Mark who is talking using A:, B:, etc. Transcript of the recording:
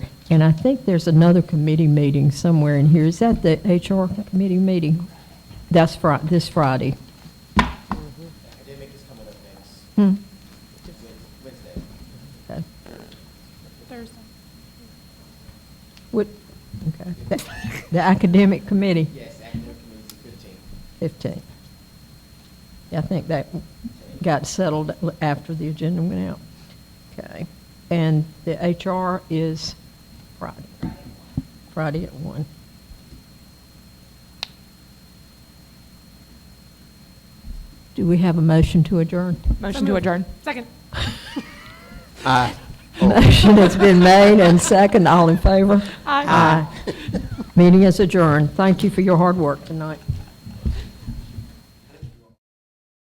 A: And I think there's another committee meeting somewhere in here. Is that the HR committee meeting? That's Fri, this Friday.
B: Academic is coming up next,
A: Hmm,
B: Wed- Wednesday.
A: okay.
C: Thursday.
A: What, okay. The- The academic committee,
B: Yes, academic committee is the
A: 15.
B: fifteenth.
A: Yeah, I think that got settled after the agenda went out. Okay. And the HR is Friday. Friday at 1. Do we have a motion to adjourn?
C: Motion to adjourn. Second.
A: Motion has been made and second, all in favor?
C: Aye.
A: Aye. Meeting is adjourned. Thank you for your hard work tonight.